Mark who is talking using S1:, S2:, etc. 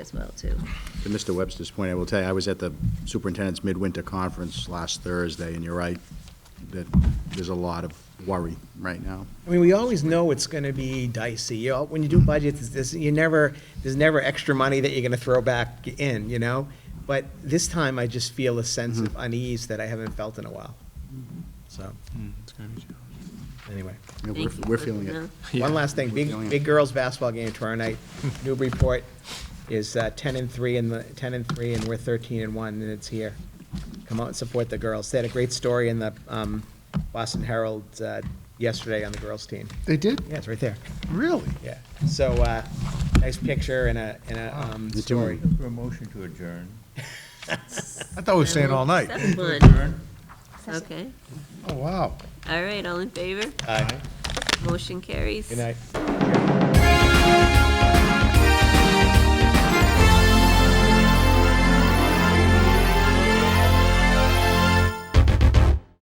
S1: as well, too.
S2: To Mr. Webster's point, I will tell you, I was at the superintendent's midwinter conference last Thursday, and you're right, that there's a lot of worry right now.
S3: I mean, we always know it's going to be dicey. You know, when you do budgets, it's this, you never, there's never extra money that you're going to throw back in, you know? But this time, I just feel a sense of unease that I haven't felt in a while. So, anyway.
S2: Yeah, We're
S1: Thank you
S2: we're
S1: for
S2: feeling
S1: that.
S2: it.
S3: One last thing,
S2: Feeling
S3: big,
S2: it.
S3: big girls' basketball game tomorrow night. Newburyport is uh, ten and three in the, ten and three, and we're thirteen and one, and it's here. Come out and support the girls. They had a great story in the um, Boston Herald uh, yesterday on the girls' team.
S4: They did?
S3: Yeah, it's right there.
S4: Really?
S3: Yeah, so, uh, nice picture and a, and a, um,
S2: You too.
S3: story.
S5: For a motion to adjourn.
S4: I thought we were staying all night.
S1: That's fun. Okay.
S4: Oh, wow.
S1: All right,
S3: uh,
S1: all in favor?
S3: Aye.
S1: Motion carries.
S3: Good night.